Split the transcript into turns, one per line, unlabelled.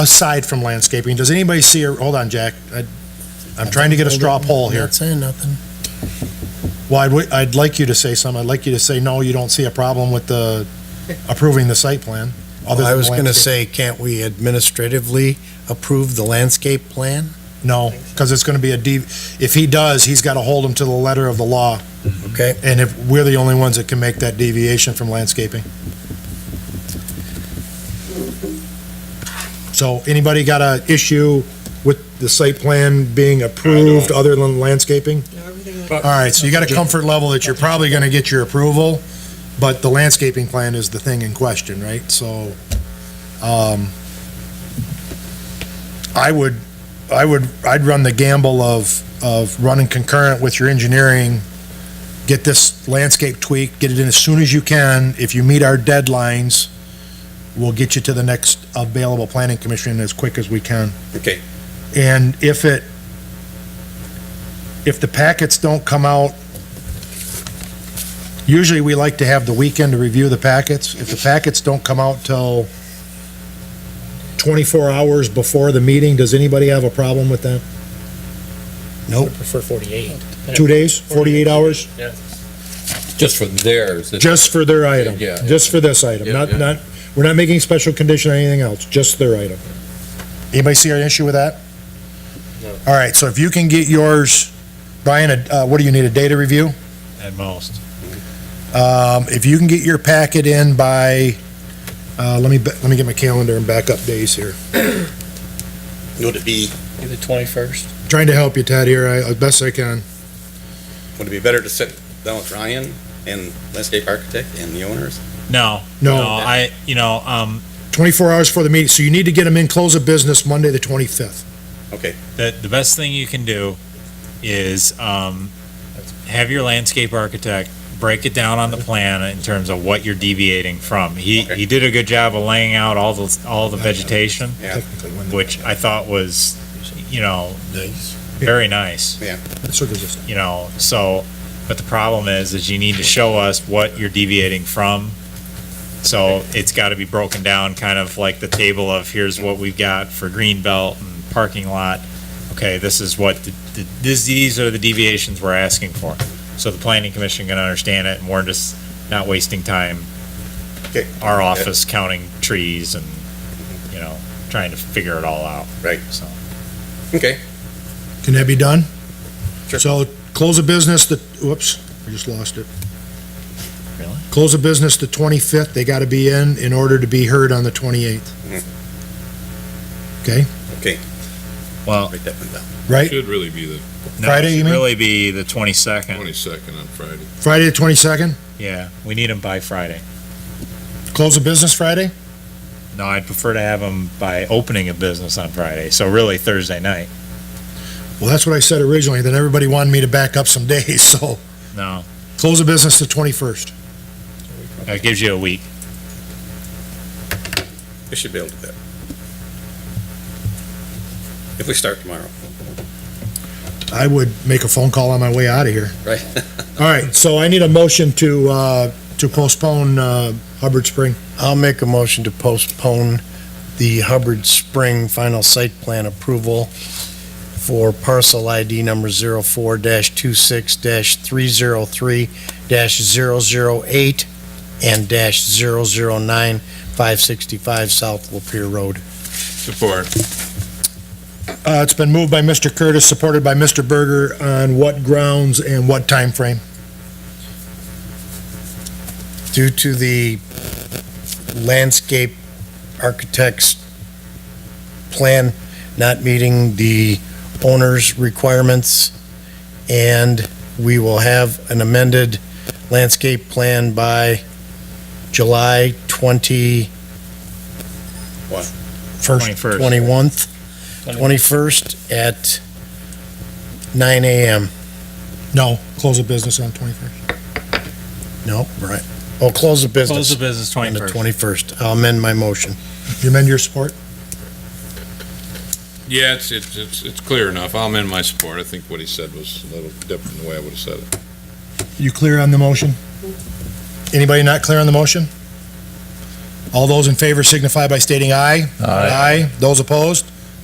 aside from landscaping, does anybody see, or, hold on, Jack, I, I'm trying to get a straw poll here.
Not saying nothing.
Well, I'd, wi- I'd like you to say something, I'd like you to say, no, you don't see a problem with the approving the site plan. other
I
than
was gonna
landscape.
say, can't we administratively approve the landscape plan?
No, because it's gonna be a D, if he does, he's gotta hold him to the letter of the law,
Okay,
and if, we're the only ones that can make that deviation from landscaping. So, anybody got a issue with the site plan being approved other than landscaping?
But-
All right, so you got a comfort level that you're probably gonna get your approval, but the landscaping plan is the thing in question, right? So, um, I would, I would, I'd run the gamble of, of running concurrent with your engineering, get this landscape tweaked, get it in as soon as you can. If you meet our deadlines, we'll get you to the next available planning commission as quick as we can.
Okay,
And if it, if the packets don't come out, usually we like to have the weekend to review the packets. If the packets don't come out till 24 hours before the meeting, does anybody have a problem with that? Nope.
prefer 48.
Two days, 48 hours,
Yeah.
just for theirs. it's-
just for their item?
Yeah, yeah.
Just for this item,
Yeah,
not,
yeah.
not, we're not making special condition or anything else, just their item. Anybody see an issue with that?
No.
All right, so if you can get yours, Brian, uh, what do you need, a data review?
at most.
Um, if you can get your packet in by, uh, let me, ba- let me get my calendar and back up days here.
Would it be,
The 21st.
Trying to help you, Ted, here, I, as best I can.
would it be better to sit down with Ryan and landscape architect and the owners?
No, no,
No,
I, you know, um,
twenty-four hours for the meeting, so you need to get them in, close of business Monday, the twenty-fifth.
the, the best thing you can do is, um, have your landscape architect break it down on the plan in terms of what you're deviating from. He,
Okay.
he did a good job of laying out all the, all the vegetation,
Yeah.
Technically, when,
which I thought was, you know,
nice.
very nice.
that's what this is.
you know, so, but the problem is, is you need to show us what you're deviating from. So it's gotta be broken down, kind of like the table of here's what we've got for green belt and parking lot. Okay, this is what, the- the- this, these are the deviations we're asking for. So the planning commission can understand it and we're just not wasting time.
Okay.
Our office counting trees and, you know, trying to figure it all out.
Right.
So.
Okay,
Can that be done?
Sure.
So, close of business, the, whoops, I just lost it.
Really?
Close of business the twenty-fifth, they gotta be in, in order to be heard on the
Mhm.
twenty-eighth. Okay,
Well,
write that one down.
right?
Should really be the
no, it
Friday,
should
you mean?
Really be the twenty-second.
twenty-second on Friday.
Friday, the twenty-second,
Yeah, we need them by Friday.
close of business Friday?
No, I'd prefer to have them by opening a business on Friday, so really Thursday night.
Well, that's what I said originally, then everybody wanted me to back up some days, so
No,
close of business the 21st.
that gives you a week.
We should be able to do that. If we start tomorrow,
I would make a phone call on my way out of here.
right?
All right, so I need a motion to, uh, to postpone, uh, Hubbard Spring.
I'll make a motion to postpone the Hubbard Spring final site plan approval for parcel ID number 04-26-303-008 and dash 009-565 South Lapeer Road.
Support.
Uh, it's been moved by Mr. Curtis, supported by Mr. Berger, on what grounds and what time frame?
Due to the landscape architect's plan not meeting the owner's requirements, and we will have an amended landscape plan by July 20,
First,
Twenty-first.
21st, 21st at 9 AM.
no, close of business on 21st.
No, right. Oh, close the
Close
business
the business
on the
twenty-first.
21st. I'll amend my motion.
You amend your support?
Yeah, it's, it's, it's, it's clear enough. I'll amend my support. I think what he said was a little different than the way I would have said it.
You clear on the motion? Anybody not clear on the motion? All those in favor signify by stating aye. Aye. Those opposed?